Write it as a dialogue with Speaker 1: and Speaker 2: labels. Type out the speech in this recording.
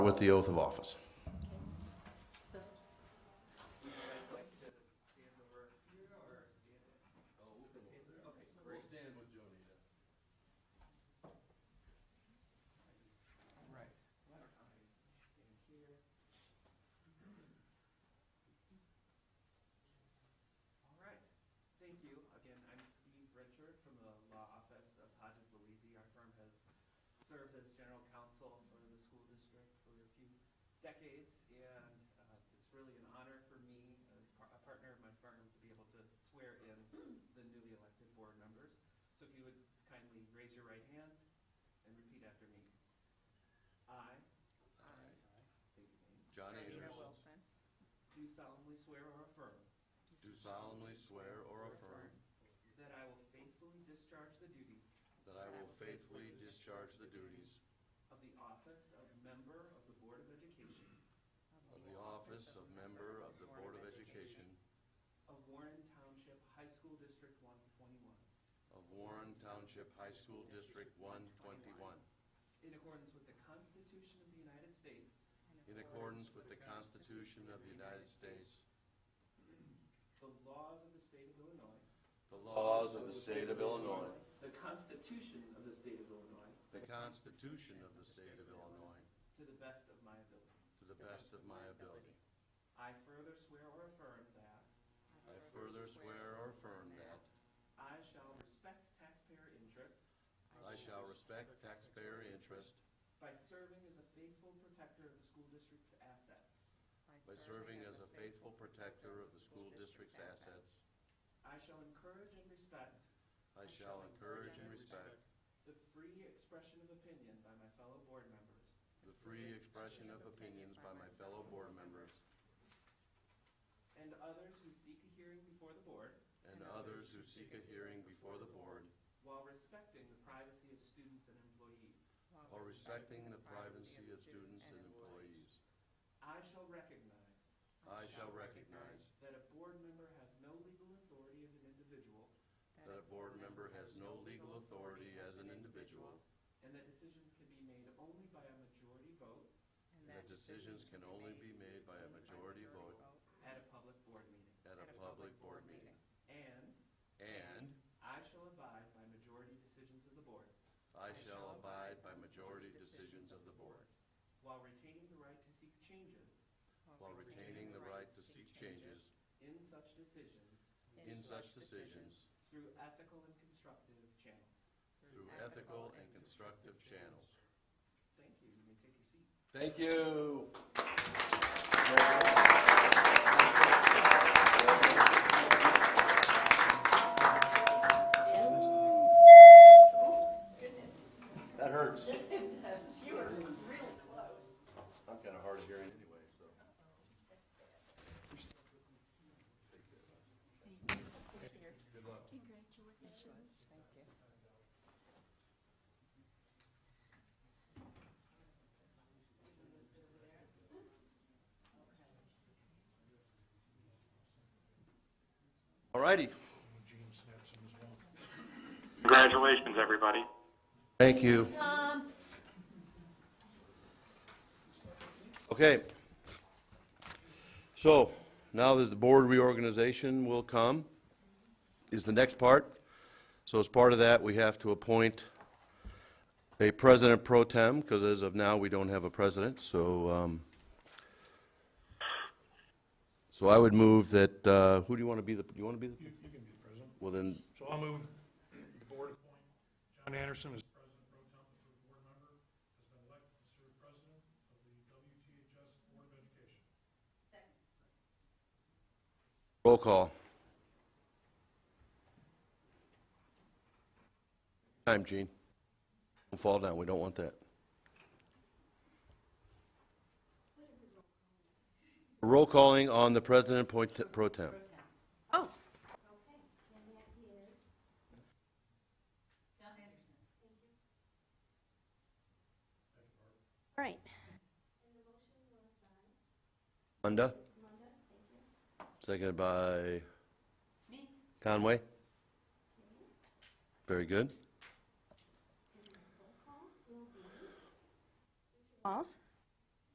Speaker 1: with the oath of office.
Speaker 2: All right, thank you. Again, I'm Steve Richard from the law office of Hodges Louisi. Our firm has served as general counsel for the school district for a few decades, and uh, it's really an honor for me, as par- a partner of my firm, to be able to swear in the newly elected board members. So if you would kindly raise your right hand and repeat after me. I. I. State your name.
Speaker 1: John
Speaker 3: Karina
Speaker 1: Anderson,
Speaker 3: Wilson,
Speaker 2: Do solemnly swear or affirm
Speaker 1: do solemnly swear or affirm
Speaker 2: that I will faithfully discharge the duties
Speaker 1: that I will faithfully discharge the duties
Speaker 2: Of the office of member of the Board of Education
Speaker 1: of the office of member of the Board of Education
Speaker 2: of Warren Township High School District 121,
Speaker 1: of Warren Township High School District 121,
Speaker 2: in accordance with the Constitution of the United States
Speaker 1: in accordance with the Constitution of the United States,
Speaker 2: The laws of the state of Illinois.
Speaker 1: the laws of the state of Illinois,
Speaker 2: The Constitution of the state of Illinois.
Speaker 1: the Constitution of the state of Illinois,
Speaker 2: To the best of my ability.
Speaker 1: to the best of my ability.
Speaker 2: I further swear or affirm that
Speaker 1: I further swear or affirm that
Speaker 2: I shall respect taxpayer interests
Speaker 1: I shall respect taxpayer interest
Speaker 2: by serving as a faithful protector of the school district's assets.
Speaker 1: by serving as a faithful protector of the school district's assets.
Speaker 2: I shall encourage and respect
Speaker 1: I shall encourage and respect
Speaker 2: the free expression of opinion by my fellow board members
Speaker 1: the free expression of opinions by my fellow board members
Speaker 2: and others who seek a hearing before the board
Speaker 1: and others who seek a hearing before the board
Speaker 2: while respecting the privacy of students and employees.
Speaker 1: while respecting the privacy of students and employees.
Speaker 2: I shall recognize
Speaker 1: I shall recognize
Speaker 2: that a board member has no legal authority as an individual
Speaker 1: that a board member has no legal authority as an individual
Speaker 2: and that decisions can be made only by a majority vote
Speaker 1: and that decisions can only be made by a majority vote
Speaker 2: at a public board meeting.
Speaker 1: at a public board meeting.
Speaker 2: And
Speaker 1: And
Speaker 2: I shall abide by majority decisions of the board
Speaker 1: I shall abide by majority decisions of the board
Speaker 2: while retaining the right to seek changes
Speaker 1: while retaining the right to seek changes
Speaker 2: in such decisions
Speaker 1: in such decisions
Speaker 2: through ethical and constructive channels.
Speaker 1: through ethical and constructive channels.
Speaker 2: Thank you. You may take your seat.
Speaker 1: Thank you. That hurts.
Speaker 2: You were really close.
Speaker 1: I'm kind of hard of hearing anyway, so. Good luck.
Speaker 3: Congratulations. Thank you.
Speaker 1: All righty.
Speaker 4: Congratulations, everybody.
Speaker 1: Thank you. Okay. So now that the board reorganization will come, is the next part. So as part of that, we have to appoint a president pro tem, because as of now, we don't have a president, so, um, so I would move that, uh, who do you want to be the, do you want to be the?
Speaker 5: You, you can be the president.
Speaker 1: Well, then,
Speaker 5: So I'll move the board appoint John Anderson as president pro tem, the third board member, has been elected to serve president of the WTHS Board of Education.
Speaker 1: roll call. Time, Gene. Don't fall down, we don't want that. Roll calling on the president pro te- pro tem.
Speaker 3: Oh. Right.
Speaker 1: Munda? Seconded by? Conway? Very good.
Speaker 3: Walls?